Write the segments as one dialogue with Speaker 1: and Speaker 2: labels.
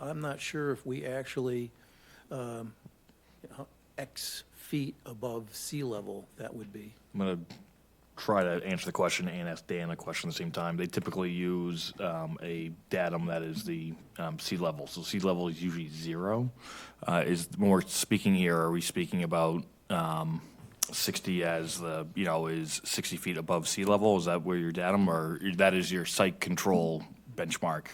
Speaker 1: I'm not sure if we actually, um, how- X feet above sea level that would be.
Speaker 2: I'm gonna try to answer the question and ask Dan a question at the same time. They typically use um, a datum that is the um, sea level. So sea level is usually zero. Uh, is when we're speaking here, are we speaking about um, 60 as the you know is 60 feet above sea level? Is that where your datum or that is your site control benchmark?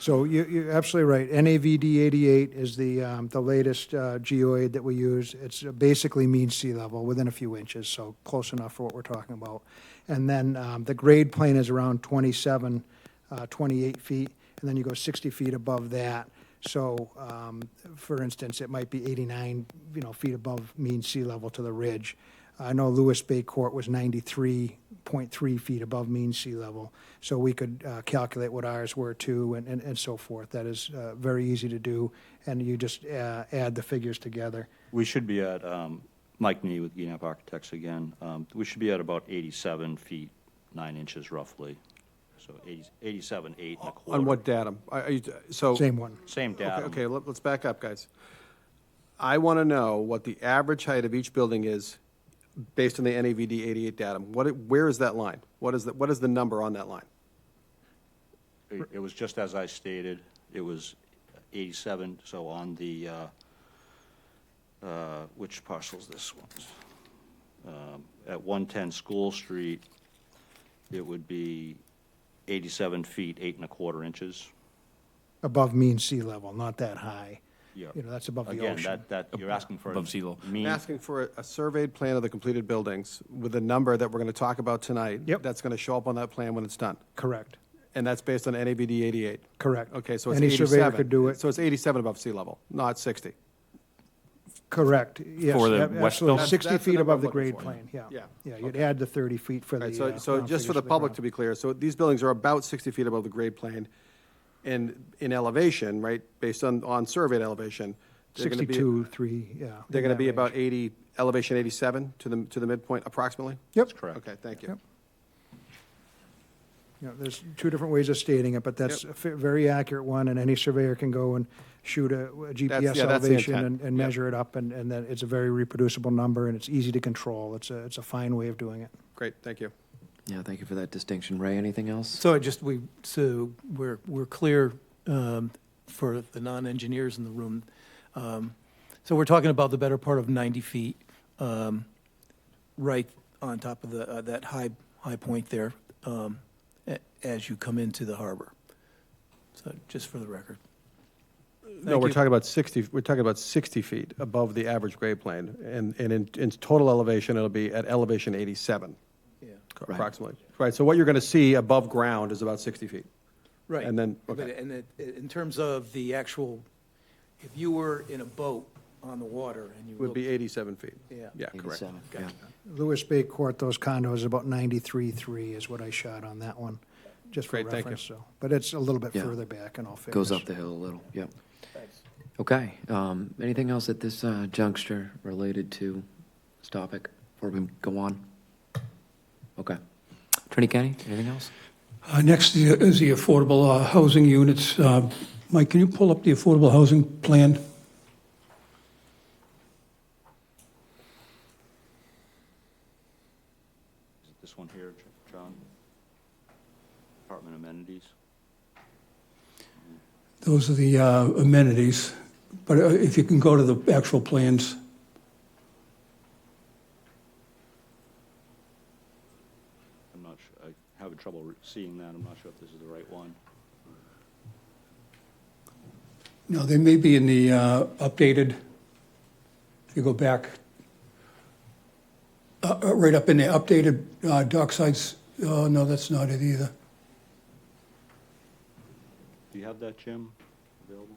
Speaker 3: So you, you're absolutely right. NAVD 88 is the, um, the latest uh, geoid that we use. It's basically mean sea level, within a few inches, so close enough for what we're talking about. And then um, the grade plane is around 27, uh, 28 feet, and then you go 60 feet above that. So, um, for instance, it might be 89, you know, feet above mean sea level to the ridge. I know Lewis Bay Court was 93.3 feet above mean sea level, so we could uh, calculate what ours were too and, and- and so forth. That is uh, very easy to do, and you just uh, add the figures together.
Speaker 4: We should be at, um, Mike Nee with Gienap Architects again, um, we should be at about 87 feet, 9 inches roughly, so 80 87, 8 and a quarter.
Speaker 5: On what datum? I- I-
Speaker 4: Oh.
Speaker 5: So.
Speaker 3: Same one.
Speaker 4: Same
Speaker 5: Okay,
Speaker 4: datum.
Speaker 5: Okay, let- let's back up, guys. I want to know what the average height of each building is based on the NAVD 88 datum. What, it- where is that line? What is, the- what is the number on that line?
Speaker 4: It it was just as I stated, it was 87, so on the, uh, uh, which parcel's this one? Um, At 110 School Street, it would be 87 feet, 8 and a quarter inches.
Speaker 3: Above mean sea level, not that high.
Speaker 4: Yeah.
Speaker 3: You know, that's above the
Speaker 4: Again,
Speaker 3: ocean.
Speaker 4: that, that, you're asking for.
Speaker 2: Above sea level.
Speaker 4: mean-
Speaker 3: Mm.
Speaker 5: I'm asking for a- a surveyed plan of the completed buildings with a number that we're going to talk about tonight.
Speaker 3: Yep.
Speaker 5: That's going to show up on that plan when it's done.
Speaker 3: Correct,
Speaker 5: And that's based on NAVD 88?
Speaker 3: Correct.
Speaker 5: Okay, so it's
Speaker 3: Any
Speaker 5: 87.
Speaker 3: surveyor could do it.
Speaker 5: So it's 87 above sea level, not 60?
Speaker 3: correct, yes.
Speaker 2: For the
Speaker 3: ab-
Speaker 2: West
Speaker 3: absolutely.
Speaker 2: Hills?
Speaker 3: Sixty
Speaker 5: That's the
Speaker 3: feet
Speaker 5: number
Speaker 3: above
Speaker 5: I'm
Speaker 3: the
Speaker 5: looking
Speaker 3: grade
Speaker 5: for.
Speaker 3: plane, yeah.
Speaker 5: Yeah.
Speaker 3: Yeah, you'd add the thirty feet for
Speaker 5: All
Speaker 3: the.
Speaker 5: right,
Speaker 3: uh,
Speaker 5: so, so
Speaker 3: ground
Speaker 5: just for
Speaker 3: figures
Speaker 5: the public
Speaker 3: ground.
Speaker 5: to be clear, so these buildings are about 60 feet above the grade plane, and in elevation, right, based on, on surveyed elevation, they're going to be,
Speaker 3: Sixty-two, three, yeah.
Speaker 5: they're
Speaker 3: in
Speaker 5: going to
Speaker 3: that
Speaker 5: be
Speaker 3: range.
Speaker 5: about 80, elevation 87 to the, to the midpoint approximately?
Speaker 3: Yep.
Speaker 4: Correct.
Speaker 5: Okay, thank you.
Speaker 3: Yep. You know, there's two different ways of stating it, but that's a fa- very accurate one, and any surveyor can go and shoot a a
Speaker 5: yeah,
Speaker 3: GPS
Speaker 5: that's the
Speaker 3: elevation
Speaker 5: intent.
Speaker 3: and, and
Speaker 5: Yeah.
Speaker 3: measure it up, and, and then it's a very reproducible number, and it's easy to control. It's a, it's a fine way of doing it.
Speaker 5: Great, thank you.
Speaker 6: Yeah, thank you for that distinction. Ray, anything else?
Speaker 1: So I just, we, so we're, we're clear um, for the non-engineers in the room. Um, So we're talking about the better part of 90 feet, um, right on top of the, uh, that high, high point there um, a- as you come into the harbor. So just for the record.
Speaker 5: No,
Speaker 1: Thank
Speaker 5: we're
Speaker 1: you.
Speaker 5: talking about 60, we're talking about 60 feet above the average grade plane, and, and in, in total elevation, it'll be at elevation 87
Speaker 1: Yeah.
Speaker 6: Right.
Speaker 5: approximately. Right, so what you're going to see above ground is about 60 feet.
Speaker 1: Right.
Speaker 5: And then-
Speaker 1: But
Speaker 5: okay.
Speaker 1: And it- in terms of the actual, if you were in a boat on the water and you
Speaker 5: Would
Speaker 1: looked
Speaker 5: be 87 feet.
Speaker 1: Yeah.
Speaker 5: Yeah, correct.
Speaker 6: 87, yeah.
Speaker 1: Gotcha.
Speaker 3: Lewis Bay Court, those condos, about ninety-three, three is what I shot on that one, just for
Speaker 5: Great, thank you.
Speaker 3: reference, so. But it's a little bit
Speaker 6: Yeah.
Speaker 3: further back in all fairness.
Speaker 6: Goes up the hill a little, yep. Okay, um, anything else at this uh, juncture related to this topic before we go on? Okay. Attorney Kenny, anything else?
Speaker 7: Uh, Next is the affordable uh, housing units. Uh, Mike, can you pull up the affordable housing plan?
Speaker 4: Is it this one here, Ch- John? Apartment amenities?
Speaker 7: Those are the uh, amenities, but uh, if you can go to the actual plans.
Speaker 4: I'm not su, I'm having trouble re- seeing that, I'm not sure if this is the right one.
Speaker 7: No, they may be in the uh, updated, if you go back, uh, uh, right up in the updated uh, Docksides, oh, no, that's not it either.
Speaker 4: Do you have that, Jim, available?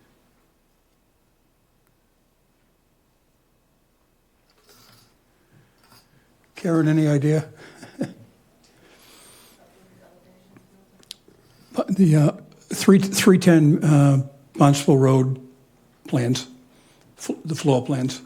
Speaker 7: Karen, any idea? But The uh, three 310 uh, Bonsall Road plans, fl- the floor plans.